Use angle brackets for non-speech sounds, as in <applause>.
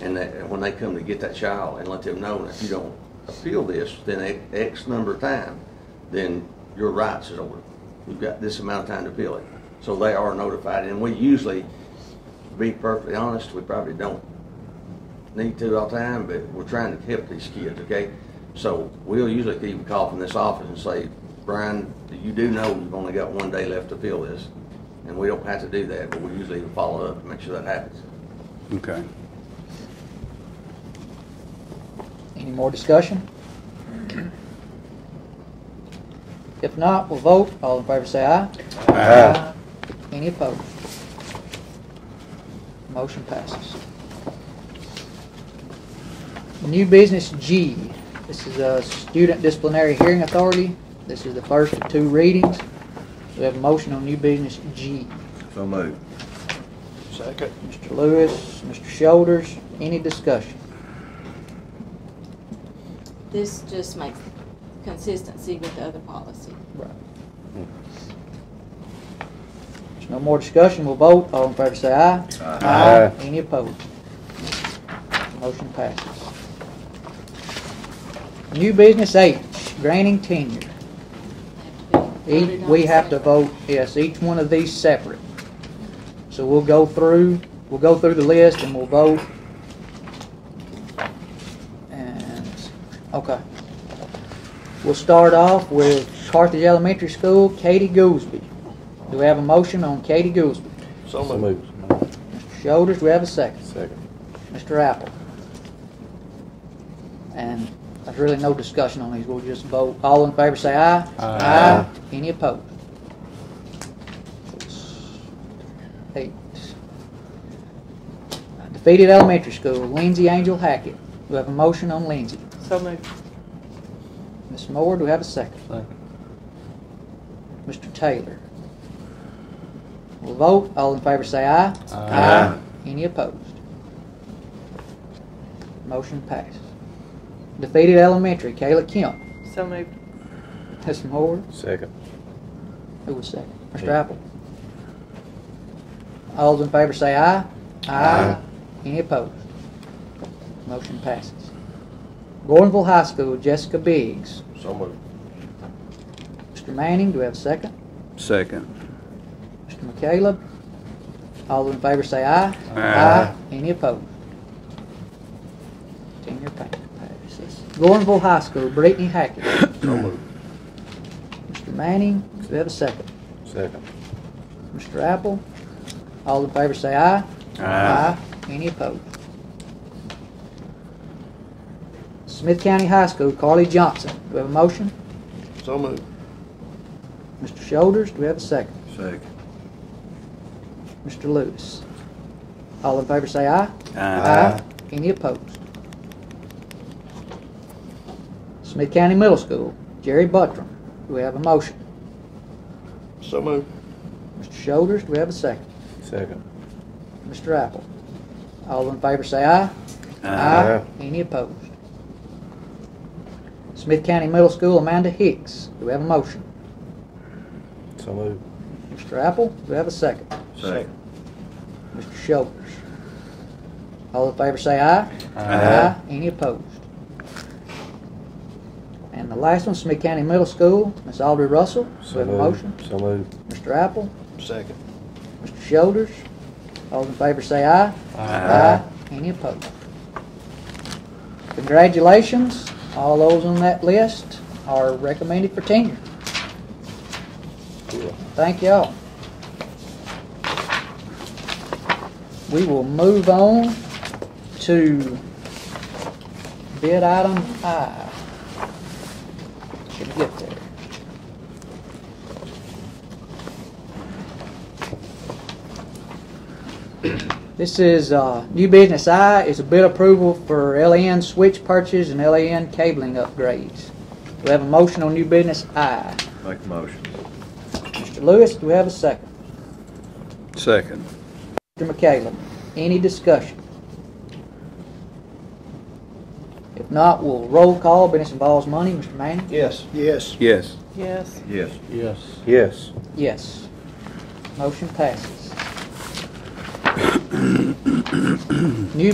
and that, when they come to get that child and let them know, that if you don't appeal this, then a- X number of time, then your rights is over. You've got this amount of time to appeal it. So they are notified, and we usually, to be perfectly honest, we probably don't need to all the time, but we're trying to help these kids, okay? So we'll usually even call from this office and say, Brian, you do know you've only got one day left to fill this, and we don't have to do that, but we usually follow up to make sure that happens. Okay. Any more discussion? If not, we'll vote. All in favor say aye. Aye. Any opposed? Motion passes. New business G. This is a student disciplinary hearing authority. This is the first of two readings. We have a motion on new business G. So moved. Second. Mr. Lewis, Mr. Shoulders, any discussion? This just makes consistency with the other policy. Right. There's no more discussion, we'll vote, all in favor say aye. Aye. Any opposed? Motion passes. New business H, granting tenure. They have to be Each, voted on we have to separate. vote, yes, each one of these separate. So we'll go through, we'll go through the list and we'll vote. And, okay. We'll start off with Carthage Elementary School, Katie Goolsby. Do we have a motion on Katie Goolsby? So moved. Mr. Shoulders, do we have a second? Second. Mr. Apple? And there's really no discussion on these, we'll just vote. All in favor say aye. Aye. Any opposed? Eight. Defeated Elementary School, Lindsay Angel Hackett. Do we have a motion on Lindsay? So moved. Ms. Moore, do we have a second? Second. Mr. Taylor? We'll vote, all in favor say aye. Aye. Any opposed? Motion passes. Defeated Elementary, Kayla Kemp. So moved. Ms. Moore, Second. who was second? Mr. Yeah. Apple. All those in favor say aye. Aye. Any opposed? Motion passes. Gordonville High School, Jessica Biggs. So moved. Mr. Manning, do we have a second? Second. Mr. McCaleb. All those in favor say aye. Aye. Any opposed? Tenure pa- passes. Gordonville High School, Brittany Hackett. <coughs> So moved. Mr. Manning, do we have a second? Second. Mr. Apple. All in favor say aye. Aye. Any opposed? Smith County High School, Carly Johnson. Do we have a motion? So moved. Mr. Shoulders, do we have a second? Second. Mr. Lewis. All in favor say aye. Any opposed? Smith County Middle School, Jerry Buttram. Do we have a motion? So moved. Mr. Shoulders, do we have a second? Second. Mr. Apple. All in favor say aye. Aye. Any opposed? Smith County Middle School, Amanda Hicks. Do we have a motion? So moved. Mr. Apple, do we have a second? Second. Mr. Shoulders. All in favor say aye. Aye. Any opposed? And the last one, Smith County Middle School, Ms. Audrey Russell. Do we So have a moved. motion? So moved. Mr. Apple, Second. Mr. Shoulders. All in favor say aye. Uh, Any opposed? Congratulations. All those on that list are recommended for tenure. Cool. Thank y'all. We will move on to bid item I. Should get there. This is, uh, new business I, is a bid approval for LAN switch purchase and LAN cabling upgrades. We have a motion on new business I. Make the motion. Mr. Lewis, do we have a second? Second. Mr. McCallum, any discussion? If not, we'll roll call, but this involves money. Mr. Manning? Yes. Yes. Yes. Yes. Yes. Yes. Yes. Yes. Motion passes. <coughs> New